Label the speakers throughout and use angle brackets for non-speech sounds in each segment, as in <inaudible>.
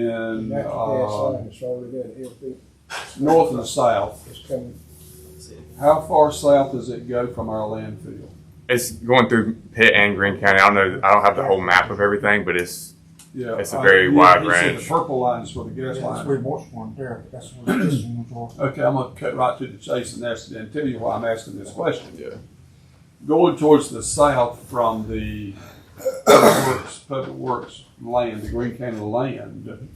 Speaker 1: Then,
Speaker 2: Natural gas
Speaker 1: uh,
Speaker 2: line, it's already got an LP,
Speaker 1: north and south,
Speaker 2: it's coming,
Speaker 1: how far south does it go from our landfill?
Speaker 3: It's going through Pitt and Greene County. I don't know. I don't have the whole map of everything, but it's
Speaker 1: Yeah.
Speaker 3: It's a
Speaker 1: I-
Speaker 3: very
Speaker 1: you-
Speaker 3: wide
Speaker 1: you see
Speaker 3: range.
Speaker 1: The purple line is for the gas
Speaker 4: That's
Speaker 1: line.
Speaker 4: where Baltimore, there, that's where this one's off.
Speaker 1: Okay, I'm gonna cut right to the chase and ask, and tell you why I'm asking this question.
Speaker 3: Yeah.
Speaker 1: Going towards the south from the Public Works, Public Works land, the Green County land,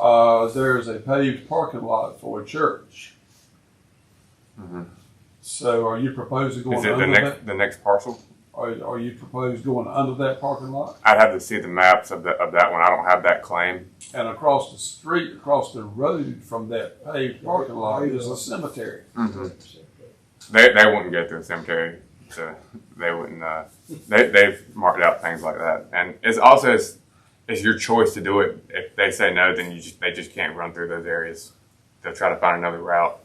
Speaker 1: uh, there's a paved parking lot for a church.
Speaker 3: Mhm.
Speaker 1: So are you proposing going
Speaker 3: is it the
Speaker 1: under that?
Speaker 3: next the next parcel?
Speaker 1: Are, are you proposed going under that parking lot?
Speaker 3: I'd have to see the maps of the, of that one. I don't have that claim.
Speaker 1: And across the street, across the road from that paved parking lot is a cemetery.
Speaker 2: Mm-hmm.
Speaker 3: They they wouldn't go through a cemetery, so they wouldn't. Uh, they they've marked out things like that, and it's also it's, it's your choice to do it. If they say no, then you just, they just can't run through those areas. They'll try to find another route.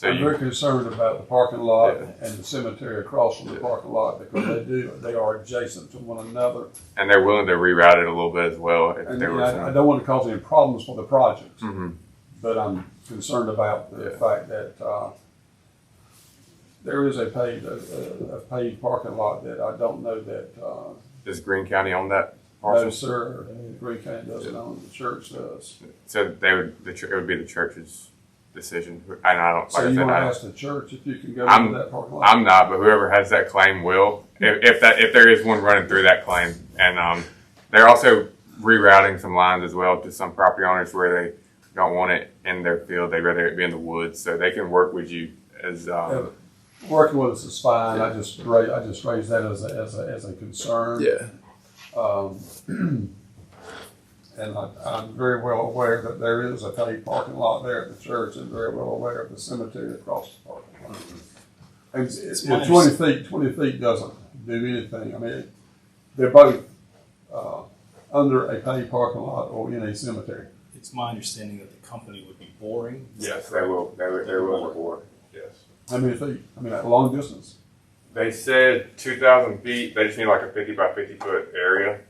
Speaker 3: So
Speaker 1: I'm
Speaker 3: you,
Speaker 1: very concerned about the parking lot and the cemetery across from the parking lot because they do, they are adjacent to one another.
Speaker 3: and they're willing to reroute it a little bit as well if
Speaker 1: And
Speaker 3: there were
Speaker 1: I, I
Speaker 3: some.
Speaker 1: don't want to cause any problems for the project,
Speaker 3: Mhm.
Speaker 1: but I'm concerned about the
Speaker 3: Yeah.
Speaker 1: fact that, uh, there is a paved, a, a- a paved parking lot that I don't know that, uh,
Speaker 3: Does Greene County own that parcel?
Speaker 1: no, sir, Green County doesn't own, the church does.
Speaker 3: So they would, the, chur- it would be the church's decision. And I don't, like
Speaker 1: So
Speaker 3: I
Speaker 1: you
Speaker 3: said,
Speaker 1: want to
Speaker 3: I,
Speaker 1: ask the church if you can go
Speaker 3: I'm-
Speaker 1: into that parking lot?
Speaker 3: I'm not, but whoever has that claim will. If, if that, if there is one running through that claim, and um, they're also rerouting some lines as well to some property owners where they don't want it in their field. They'd rather it be in the woods, so they can work with you as
Speaker 1: Oh,
Speaker 3: um,
Speaker 1: Working with us is fine. I just ra- I just raised that as a, as a, as a concern.
Speaker 3: yeah.
Speaker 1: Um, <clears throat> and I, I'm very well aware that there is a paid parking lot there at the church, and very well aware of the cemetery across the parking lot. And it's,
Speaker 5: my
Speaker 1: twenty feet. Twenty feet doesn't do anything. I mean, it- they're both uh, under a paid parking lot or in a cemetery.
Speaker 5: It's my understanding that the company would be boring. Is that
Speaker 3: Yes, they
Speaker 5: correct?
Speaker 3: will. They will. They will reward. Yes.
Speaker 1: How many feet? I mean, at long distance.
Speaker 3: They said 2,000 feet. They just need like a 50 by 50 foot area.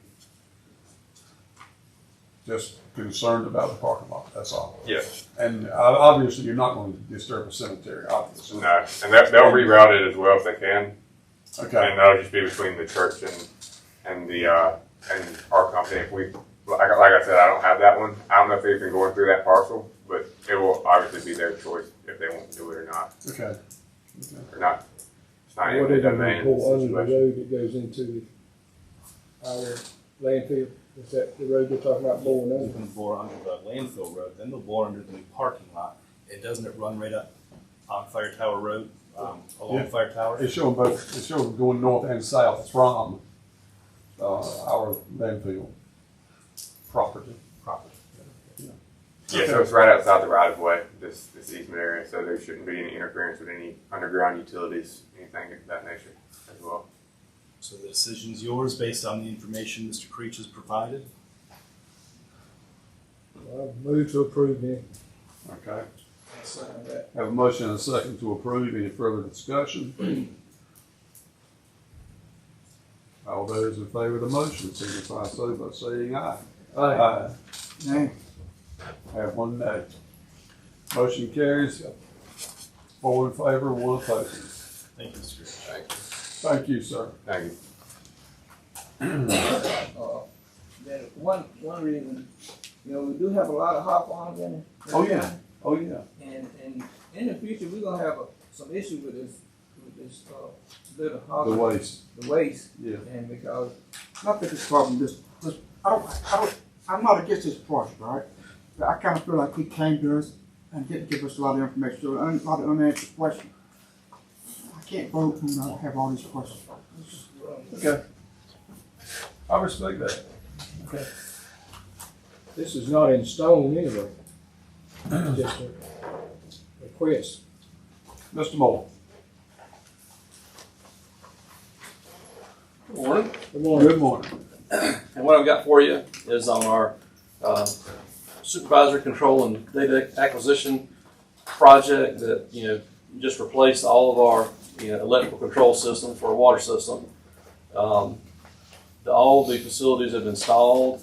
Speaker 1: Just concerned about the parking lot. That's all.
Speaker 3: Yes.
Speaker 1: And uh, obviously, you're not going to disturb a cemetery, obviously.
Speaker 3: No. And that, they'll reroute it as well if they can.
Speaker 1: Okay.
Speaker 3: And that'll just be between the church and and the uh, and our company. If we like, like I said, I don't have that one. I don't know if they've been going through that parcel, but it will obviously be their choice if they want to do it or not.
Speaker 1: Okay.
Speaker 3: Or not. It's not in the
Speaker 2: whatever
Speaker 3: domain
Speaker 2: you
Speaker 3: of
Speaker 2: pull
Speaker 3: the
Speaker 2: under the
Speaker 3: situation.
Speaker 2: road that goes into our landfill, is that the road you're talking about blowing
Speaker 5: They
Speaker 2: under?
Speaker 5: can bore under the landfill road, then they'll bore under the new parking lot. And doesn't it run right up on Fire Tower Road, um, along
Speaker 1: Yeah.
Speaker 5: Fire Tower?
Speaker 1: It's showing both, it's showing going north and south from uh, our landfill property.
Speaker 5: Property.
Speaker 3: Yeah, so it's right outside the right of way. This this easement area, so there shouldn't be any interference with any underground utilities, anything of that nature as well.
Speaker 5: So the decision's yours based on the information Mr. Creech has provided.
Speaker 2: Well, I move to approve then.
Speaker 1: Okay. Have a motion and a second to approve. Any further discussion? All those in favor of the motion signify so by saying aye. Aye.
Speaker 4: Nay.
Speaker 1: Have one nay. Motion carries. Four in favor, one opposed.
Speaker 5: Thank you, Mr. Creech.
Speaker 1: Thank you, sir.
Speaker 3: Thank you.
Speaker 6: uh, that one, one reason, you know, we do have a lot of hop farms in. the
Speaker 1: Oh, yeah.
Speaker 6: county,
Speaker 1: Oh, yeah.
Speaker 6: And, and in the future, we're gonna have a, some issue with this, with this, uh, little hop.
Speaker 1: The waste,
Speaker 6: The waste,
Speaker 1: yeah.
Speaker 6: and because,
Speaker 4: Not that it's problem, this, this, I don't, I don't, I'm not against this project, all right? But I kinda feel like he came to us and didn't give us a lot of information, so a lot of unanswered questions. I can't vote when I have all these questions.
Speaker 6: um,
Speaker 1: Okay. I respect that.
Speaker 2: This is not in stone anyway. It's just a request.
Speaker 1: Mr. Moore?
Speaker 7: Morning.
Speaker 2: Good morning.
Speaker 1: Good morning.
Speaker 7: And what I've got for you is on our uh, supervisor control and data acquisition project that, you know, just replaced all of our, you know, electrical control system for a water system. Um, the- All the facilities have been installed.